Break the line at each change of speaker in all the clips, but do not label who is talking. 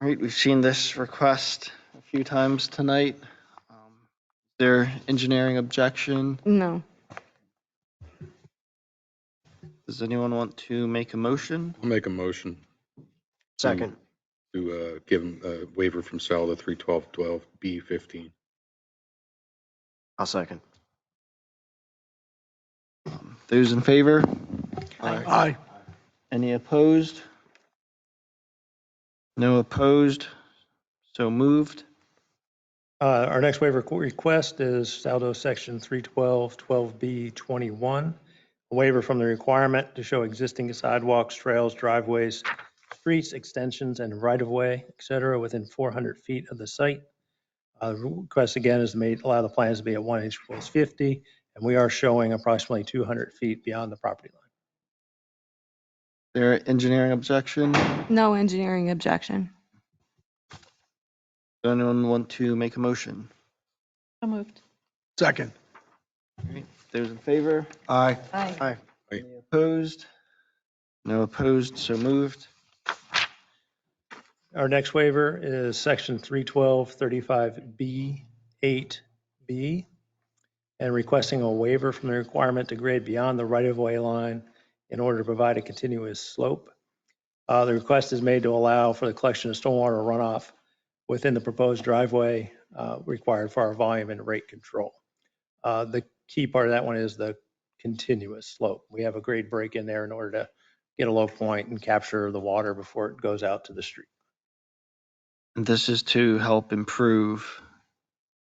All right, we've seen this request a few times tonight. Um, Is there engineering objection?
No.
Does anyone want to make a motion?
I'll make a motion
Second.
to uh, give him a waiver from Sal to 312-12B15.
I'll second.
Um, Those in favor?
Aye.
Any opposed? No opposed? So moved.
Uh, Our next waiver qu- request is Saldo Section 312, 12B, 21. A waiver from the requirement to show existing sidewalks, trails, driveways, streets, extensions, and right-of-way, et cetera, within 400 feet of the site. Uh, the Request again is made, allow the plans to be at 1 inch plus 50, and we are showing approximately 200 feet beyond the property line.
There engineering objection?
No engineering objection.
Does anyone want to make a motion?
So moved.
Second.
Those in favor?
Aye.
Aye.
Any opposed? No opposed, so moved.
Our next waiver is section 312, 35B, 8B, and requesting a waiver from the requirement to grade beyond the right-of-way line in order to provide a continuous slope. Uh, The request is made to allow for the collection of stormwater runoff within the proposed driveway uh, required for our volume and rate control. Uh, The key part of that one is the continuous slope. We have a grade break in there in order to get a low point and capture the water before it goes out to the street.
And this is to help improve.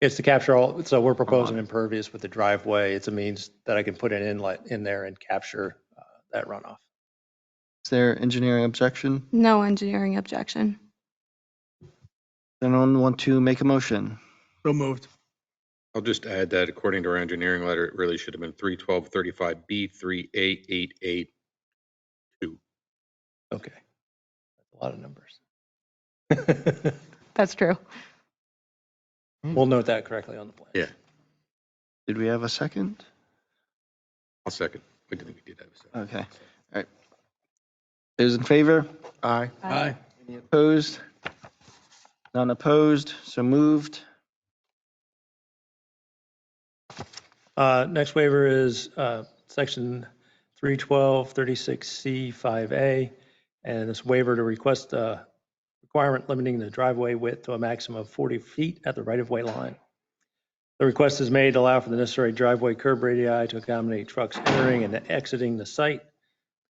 It's to capture all, so we're proposing impervious with the driveway. It's a means that I can put an inlet in there and capture uh, that runoff.
Is there engineering objection?
No engineering objection.
Does anyone want to make a motion?
So moved.
I'll just add that according to our engineering letter, it really should have been 312-35B3A88A.
Okay. That's A lot of numbers.
That's true.
We'll note that correctly on the plan.
Yeah.
Did we have a second?
I'll second. We didn't, we did have a second.
Okay, all right. Those in favor?
Aye.
Aye.
Any opposed? None opposed, so moved.
Uh, Next waiver is uh, section 312, 36C, 5A, and this waiver to request a requirement limiting the driveway width to a maximum of 40 feet at the right-of-way line. The request is made to allow for the necessary driveway curb radii to accommodate trucks entering and exiting the site.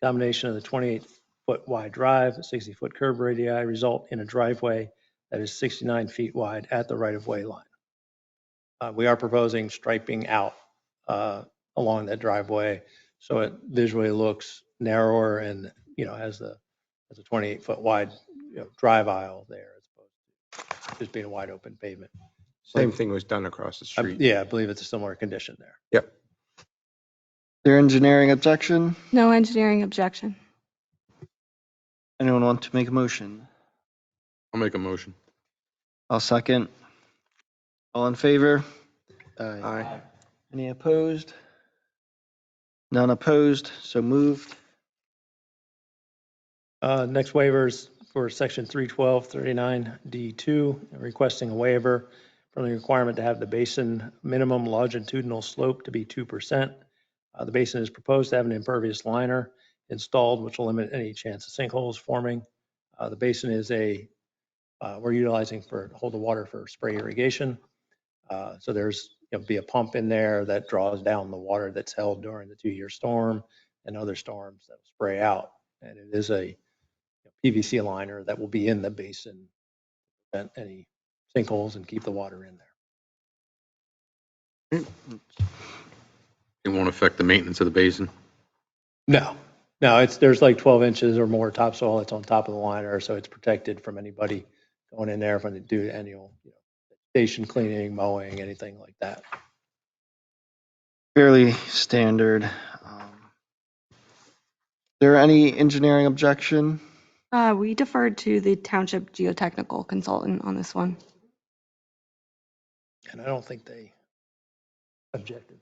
Combination of the 28-foot wide drive, 60-foot curb radii result in a driveway that is 69 feet wide at the right-of-way line. Uh, We are proposing striping out uh, along that driveway, so it visually looks narrower and, you know, has the, has a 28-foot wide, you know, drive aisle there as opposed to just being a wide open pavement.
Same thing was done across the
I-
street.
Yeah, I believe it's a similar condition there.
Their engineering objection?
No engineering objection.
Anyone want to make a motion?
I'll make a motion.
I'll second. All in favor?
Aye.
Any opposed? None opposed, so moved.
Uh, Next waivers for section 312, 39D2, requesting a waiver from the requirement to have the basin minimum longitudinal slope to be 2%. Uh, The basin is proposed to have an impervious liner installed, which will limit any chance of sinkholes forming. Uh, The basin is a, uh, we're utilizing for, hold the water for spray irrigation. Uh, So there's, there'll be a pump in there that draws down the water that's held during the two-year storm and other storms that spray out. And it is a PVC liner that will be in the basin, prevent any sinkholes and keep the water in there.
It won't affect the maintenance of the basin.
No, no, it's, there's like 12 inches or more topsoil that's on top of the liner, so it's protected from anybody going in there from the due to annual, you know, station cleaning, mowing, anything like that.
Fairly standard. Um, There any engineering objection?
Uh, we deferred to the township geotechnical consultant on this one.
And I don't think they objected.